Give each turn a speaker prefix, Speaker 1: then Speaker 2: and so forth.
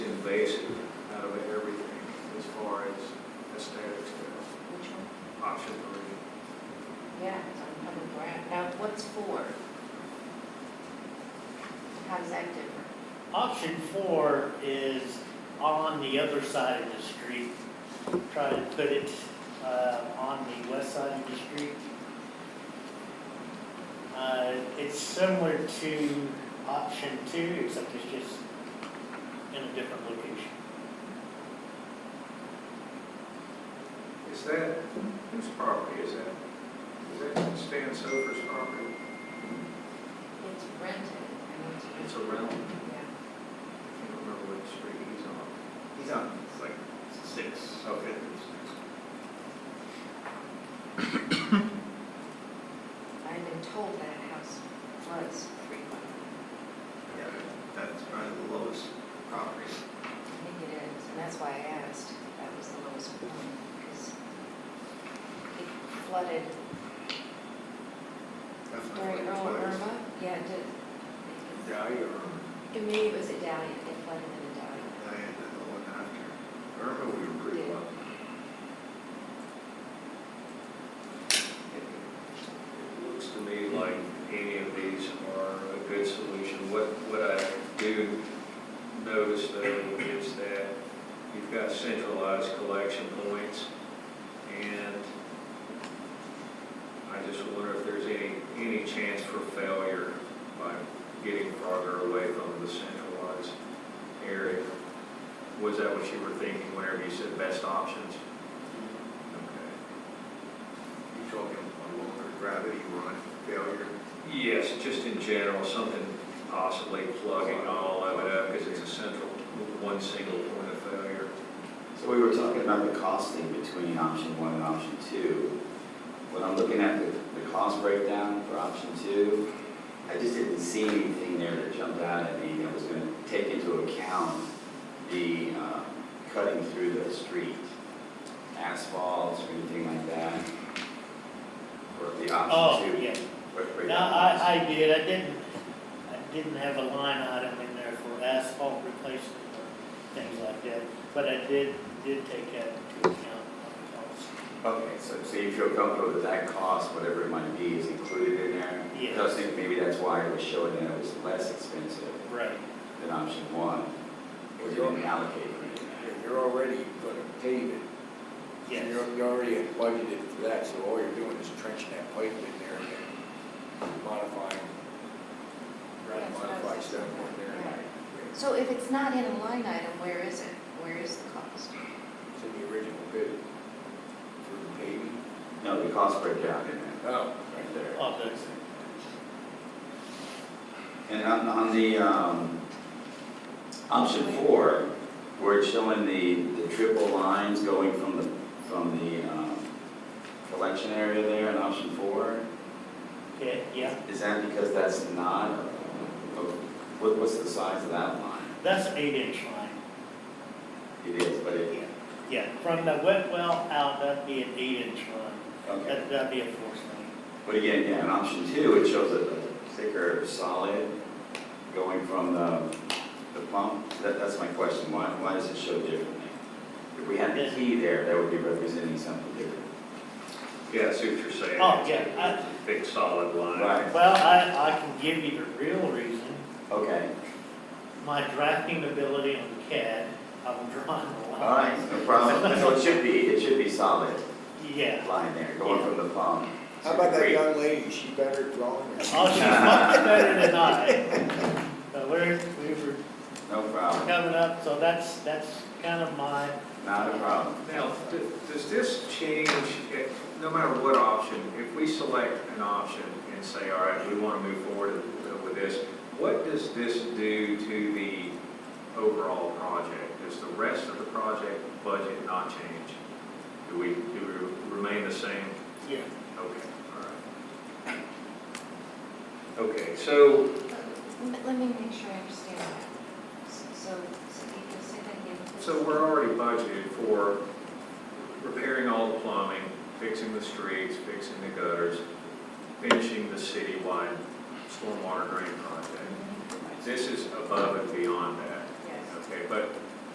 Speaker 1: option four is on the other side of the street. Try to put it, uh, on the west side of the street. Uh, it's similar to option two, except it's just in a different location.
Speaker 2: Is that, whose property is that? Is that Stan Sofer's property?
Speaker 3: It's rented. I know
Speaker 2: It's a rental.
Speaker 3: Yeah.
Speaker 2: I can't remember what street he's on.
Speaker 4: He's on, it's like six.
Speaker 2: Okay.
Speaker 3: I've been told that house floods frequently.
Speaker 4: Yeah, that's probably the lowest property.
Speaker 3: I think it is, and that's why I asked. if That was the lowest one, because it flooded
Speaker 4: That's not
Speaker 3: during
Speaker 4: like
Speaker 3: Earl
Speaker 4: twice.
Speaker 3: Irma. Yeah, it did.
Speaker 4: Dahlia or,
Speaker 3: It maybe it was a Dahlia, it flooded in a Dahlia.
Speaker 4: Dahlia, the one after. Irma, we were pretty
Speaker 3: Yeah.
Speaker 4: low.
Speaker 2: It looks to me like any of these are a good solution. What, what I do notice though is that you've got centralized collection points and I just wonder if there's any, any chance for failure by getting farther away from the centralized area. Was that what you were thinking whenever you said best options? Okay.
Speaker 4: You talking a lower gravity run failure?
Speaker 2: Yes, just in general, something possibly plugging all of it up because it's a central, one single point of failure.
Speaker 5: So we were talking about the costing between option one and option two. When I'm looking at the, the cost breakdown for option two, I just didn't see anything there that jumped out at me that was gonna take into account the, um, cutting through the street, asphalt or anything like that. Or the
Speaker 1: Oh,
Speaker 5: option two.
Speaker 1: yeah.
Speaker 5: break- breakdown.
Speaker 1: No, I, I did, I didn't, I didn't have a line item in there for asphalt replacement or things like that, but I did, did take that into account. on
Speaker 5: Okay, so, so you feel comfortable that that cost, whatever it might be, is included in there?
Speaker 1: Yes.
Speaker 5: I was thinking maybe that's why it was showing that it was less expensive.
Speaker 1: the cost. Right.
Speaker 5: than option one, or you didn't allocate anything.
Speaker 6: You're already gonna pave it.
Speaker 1: Yes,
Speaker 6: You're- You already have budgeted for that, so all you're doing is trenching that pipe in there and then modifying,
Speaker 3: That's what I was
Speaker 6: modify
Speaker 3: just-
Speaker 6: stuff on there.
Speaker 3: Right. So if it's not in a line item, where is it? Where is the cost?
Speaker 6: It's in the original bid for the paving.
Speaker 5: No, the cost breakdown in there,
Speaker 6: Oh.
Speaker 5: right there.
Speaker 1: Oh, good.
Speaker 5: And on, on the, um, option four, where it's showing the, the triple lines going from the, from the, um, collection area there in option four,
Speaker 1: okay, yeah,
Speaker 5: is that because that's not, oh, what, what's the size of that line?
Speaker 1: that's an eight inch line,
Speaker 5: It is, but it,
Speaker 1: yeah, yeah, from the wet well out, that'd be an eight inch line,
Speaker 5: okay.
Speaker 1: that, that'd be a force main.
Speaker 5: But again, yeah, in option two, it shows a a thicker solid going from the, the pump. That, that's my question, why, why does it show differently? If we had the key there, that would be representing something different.
Speaker 2: Yeah, I see what you're saying.
Speaker 1: Oh, yeah, I-
Speaker 2: Big solid line.
Speaker 5: Right,
Speaker 1: Well, I, I can give you the real reason,
Speaker 5: okay,
Speaker 1: my drafting ability on CAD, I'm drawing the
Speaker 5: all
Speaker 1: line.
Speaker 5: right, no problem. So it should be, it should be solid
Speaker 1: Yeah,
Speaker 5: line there, going from the pump.
Speaker 6: How about that
Speaker 5: Great.
Speaker 6: young lady, she better drawing? or-
Speaker 1: Oh, she's much better than I. But we're, we were
Speaker 5: No problem,
Speaker 1: coming up, so that's, that's kind of my,
Speaker 5: not a problem.
Speaker 2: Now, d- does this change, eh, no matter what option, if we select an option and say, all right, we want to move forward with this, what does this do to the overall project? Does the rest of the project budget not change? Do we, do we remain the same?
Speaker 1: yeah,
Speaker 2: Okay, all right. Okay, so,
Speaker 3: Let let me make sure I understand that. S- So, so you can say that again. please?
Speaker 2: so we're already budgeted for repairing all the plumbing, fixing the streets, fixing the gutters, finishing the citywide stormwater drain project. This is above and beyond that,
Speaker 3: Yes.
Speaker 2: okay? But